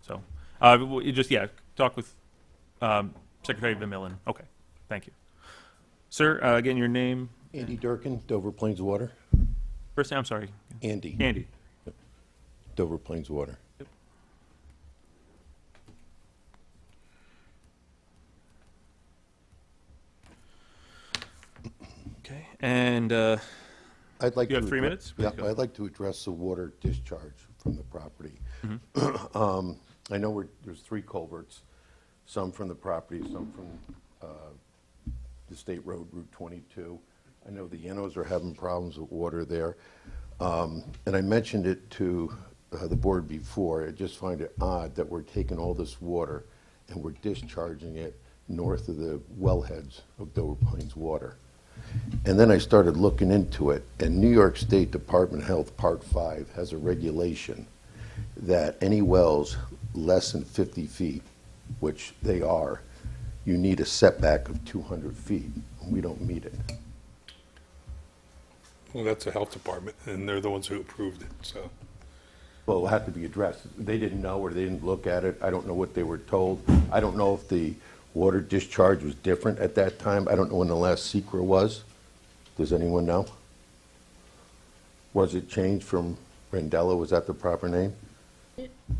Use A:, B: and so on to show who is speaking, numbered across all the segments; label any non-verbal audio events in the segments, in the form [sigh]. A: So, uh, w- you just, yeah, talk with, um, Secretary Van Millen. Okay, thank you. Sir, uh, again, your name,
B: Andy Durkin, Dover Plains Water.
A: first name, I'm sorry,
B: Andy,
A: Andy.
B: Dover Plains Water.
A: Okay, and, uh,
B: I'd like to.
A: You have three
B: addre-
A: minutes? Please
B: Yeah,
A: go.
B: I'd like to address the water discharge from the property. [clears throat] Um,
A: Mm-hmm.
B: I know we're, there's three culverts, some from the property, some from uh, the state road, Route 22. I know the Yenos are having problems with water there. Um, And I mentioned it to uh, the board before, I just find it odd that we're taking all this water and we're discharging it north of the wellheads of Dover Plains Water. And then I started looking into it, and New York State Department of Health, Part 5, has a regulation that any wells less than 50 feet, which they are, you need a setback of 200 feet. We don't meet it.
C: Well, that's the health department, and they're the ones who approved it, so.
B: Well, it'll have to be addressed. They didn't know or they didn't look at it. I don't know what they were told. I don't know if the water discharge was different at that time. I don't know when the last secret was. Does anyone know? Was it changed from Rendella? Was that the proper name?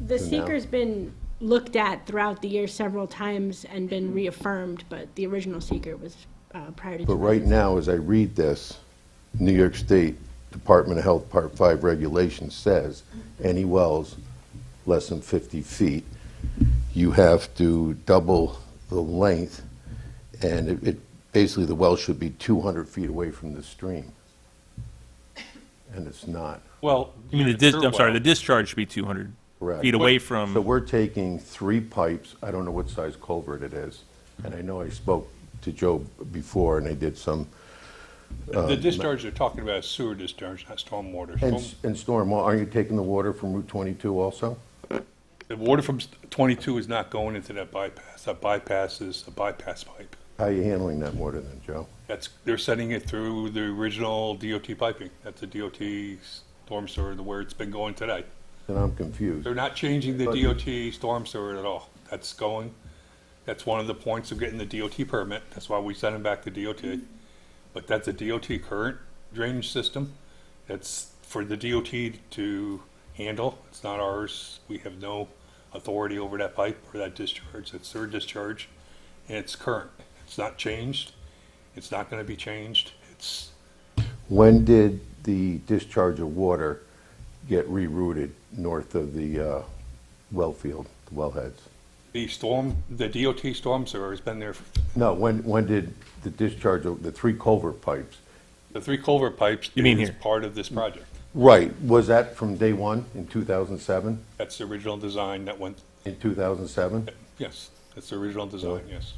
D: The
B: So now-
D: seeker's been looked at throughout the year several times and been reaffirmed, but the original seeker was uh, prior to.
B: Mm-hmm. But right now, as I read this, New York State Department of Health Part 5 regulation says any wells less than 50 feet, you have to double the length, and it- it, basically, the well should be 200 feet away from the stream. And it's not.
C: Well.
A: You mean the dis, I'm sorry, the discharge should be two hundred
B: Correct.
A: feet away
B: So
A: from,
B: we're taking three pipes, I don't know what size culvert it is, and I know I spoke to Joe before, and I did some
C: The discharge you're talking about is sewer discharge, not
B: Uh,
C: stormwater.
B: And,
C: Storm-
B: s- and storm, well, aren't you taking the water from Route 22 also?
C: The water from s- twenty-two is not going into that bypass. That bypass is a bypass pipe.
B: How are you handling that water then, Joe?
C: That's, they're sending it through the original DOT piping. That's the DOT storm sewer, the where it's been going today.
B: Then I'm confused.
C: They're not changing the DOT storm sewer at all. That's going, that's one of the points of getting the DOT permit. That's why we sent them back to DOT. But that's a DOT current drainage system. That's for the DOT to handle. It's not ours. We have no authority over that pipe or that discharge. It's their discharge. And it's current. It's not changed. It's not gonna be changed. It's,
B: When did the discharge of water get rerouted north of the uh, well field, the wellheads?
C: the storm, the DOT storm sewer has been there for
B: No, when, when did the discharge of the three culvert pipes?
C: The three culvert pipes
A: You mean
C: is
A: here?
C: part of this project.
B: Right, was that from day one in 2007?
C: That's the original design that went,
B: In 2007?
C: yes, that's the original design, yes.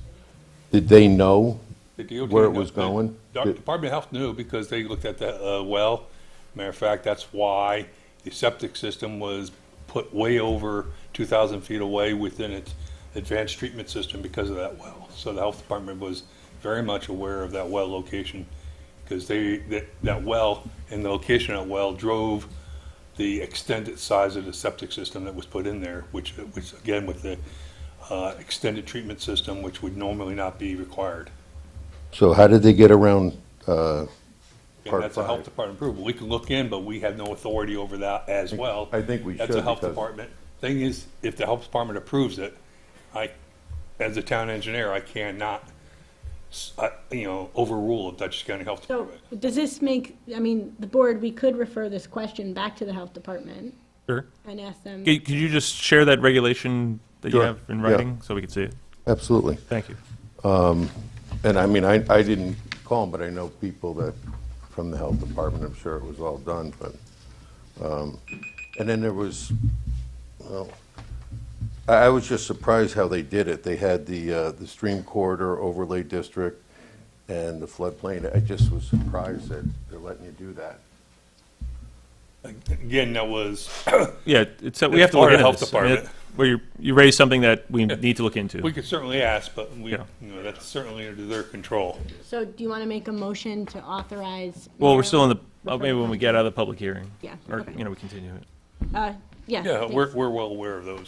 B: Did they know?
C: The DOT
B: Where it
C: knows-
B: was going?
C: The Doc- Department of Health knew because they looked at the uh, well. Matter of fact, that's why the septic system was put way over 2,000 feet away within its advanced treatment system because of that well. So the health department was very much aware of that well location because they, that, that well and the location of that well drove the extended size of the septic system that was put in there, which, which again with the uh, extended treatment system, which would normally not be required.
B: So how did they get around uh,
C: And
B: Part
C: that's a
B: five.
C: health department approval. We can look in, but we have no authority over that as well.
B: I think we
C: That's a
B: should,
C: health
B: because-
C: department. Thing is, if the health department approves it, I, as a town engineer, I cannot, s- I- you know, overrule the Dutchess County Health
D: So
C: Department.
D: does this make, I mean, the board, we could refer this question back to the health department
A: sure.
D: and ask them.
A: Could, could you just share that regulation that you
B: Sure,
A: have in
B: yeah.
A: writing, so we can see it?
B: Absolutely.
A: Thank you.
B: And I mean, I, I didn't call them, but I know people that, from the health department, I'm sure it was all done, but, um, and then there was, well, I, I was just surprised how they did it. They had the, uh, the stream corridor overlay district and the floodplain. I just was surprised that they're letting you do that.
C: Again, that was,
A: Yeah, it- it's, we
C: It's
A: have to look
C: part of
A: into
C: Health
A: this. I mean,
C: Department.
A: it- Where you, you raised something that we need to look into.
C: we could certainly ask, but we,
A: Yeah.
C: you know, that's certainly under their control.
D: So do you want to make a motion to authorize?
A: Well, we're
D: Mayor-
A: still in the, oh, maybe when we get out of the public hearing.
D: Yeah,
A: Or,
D: okay.
A: you know, we continue it.
D: Uh, yeah.
C: Yeah,
D: please.
C: we're, we're well aware of those.